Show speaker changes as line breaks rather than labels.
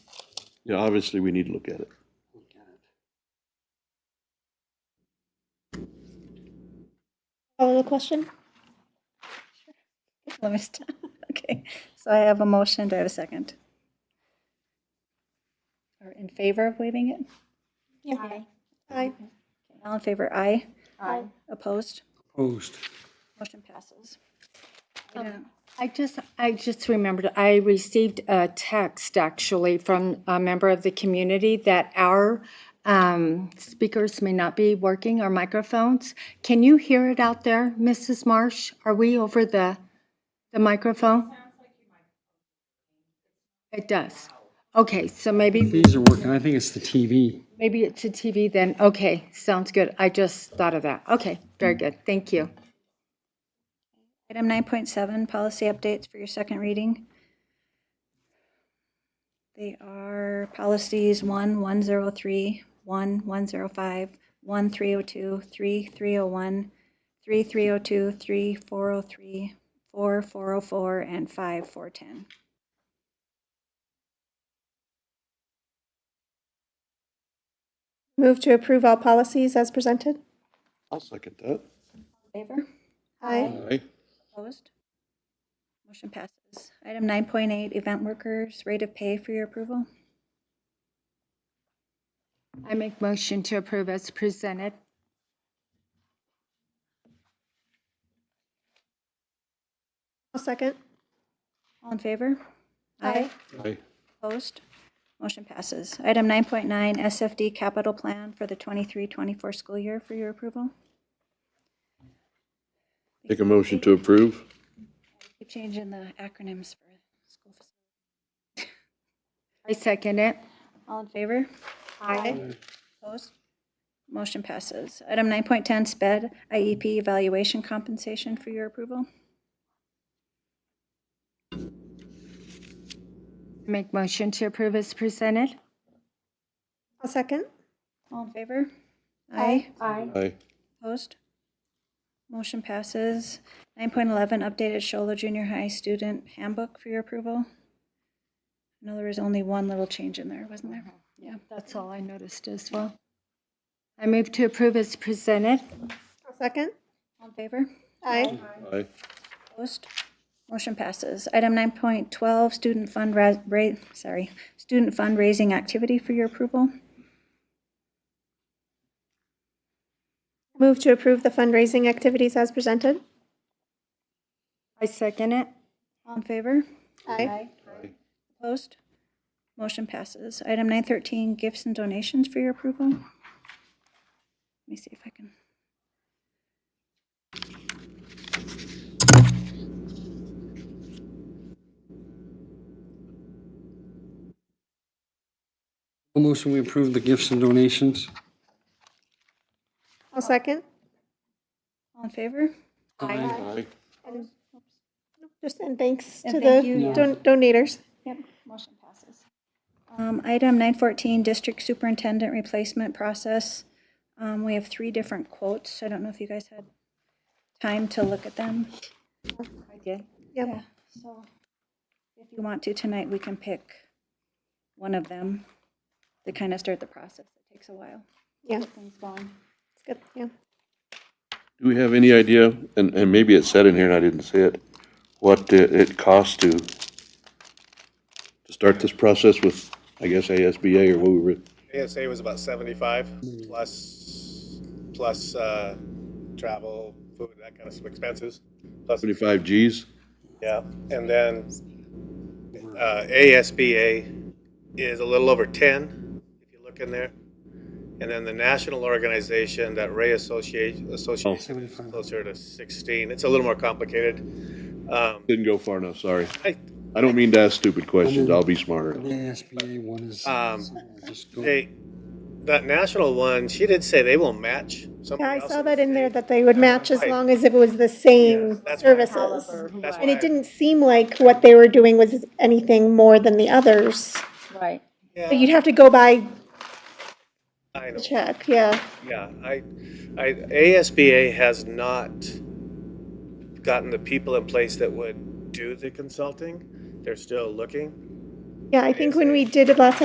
Yeah, obviously, we need to look at it.
Look at it.
Follow the question?
Let me stop. Okay, so I have a motion. Do I have a second? Or in favor of waiving it?
Yeah. Aye.
All in favor, aye.
Aye.
Opposed?
Opposed.
Motion passes.
I just, I just remembered, I received a text actually from a member of the community that our um, speakers may not be working, our microphones. Can you hear it out there, Mrs. Marsh? Are we over the, the microphone? It does. Okay, so maybe,
These are working. I think it's the TV.
maybe it's a TV then. Okay, sounds good. I just thought of that. Okay, very good. Thank you.
Item 9.7, policy updates for your second reading. They are policies 1, 103, 1, 105, 1, 302, 3, 301, 3, 302, 3, 403, 4, 404, and 5, 410.
Move to approve all policies as presented?
I'll second that.
Favor?
Aye.
Aye.
Opposed? Motion passes. Item 9.8, event workers, rate of pay for your approval.
I make motion to approve as presented.
I'll second.
All in favor?
Aye.
Opposed? Motion passes. Item 9.9, SFD capital plan for the 23-24 school year for your approval.
Make a motion to approve?
Keep changing the acronyms for school. facilities.
I second it.
All in favor?
Aye.
Opposed? Motion passes. Item 9.10, SPED IEP E evaluation compensation for your approval.
Make motion to approve as presented.
I'll second.
All in favor? Aye.
Aye.
Opposed? Motion passes. 9.11, updated Shola Junior High Student Handbook for your approval. I know there was only one little change in there, wasn't there?
Yeah, that's all I noticed as well. I move to approve as presented.
I'll second.
All in favor?
Aye.
Aye.
Opposed? Motion passes. Item 9.12, student fund ra, ra- sorry, student fundraising activity for your approval.
Move to approve the fundraising activities as presented?
I second it.
All in favor?
Aye.
Opposed? Motion passes. Item 913, gifts and donations for your approval. Let me see if I can.
A motion we approve the gifts and donations.
I'll second.
All in favor?
Aye.
Just, and thanks
And
to
thank
the
you.
don- donators.
Yep, motion passes. Um, Item 914, district superintendent replacement process. Um, We have three different quotes. I don't know if you guys had time to look at them.
I did.
Yep.
So if you want to tonight, we can pick one of them to kind of start the process. It takes a while.
Yeah,
Get Things going.
it's good, yeah.
Do we have any idea, and, and maybe it said in here and I didn't see it, what it, it costs to, to start this process with, I guess, ASBA or what we were,
ASA was about seventy-five plus, plus, uh, travel, food, that kind of expenses. Plus,
seventy-five Gs?
yeah, and then, uh, ASBA is a little over ten, if you look in there. And then the national organization, that Ray Associate, Association, is
Seventy-five.
closer to sixteen. It's a little more complicated. Um,
Didn't go far enough, sorry.
I,
I don't mean to ask stupid questions, I'll be smarter.
The ASBA one is.
Um,
just go-
they, that national one, she did say they will match something
Yeah, I
else.
saw that in there that they would match as
Right.
long as if it was the
Yes,
same
that's right.
services.
That's
And
why-
it didn't seem like what they were doing was anything more than the others.
Right.
But you'd have to go by
I know.
check, yeah.
Yeah, I, I, ASBA has not gotten the people in place that would do the consulting. They're still looking.
Yeah, I think when we did it last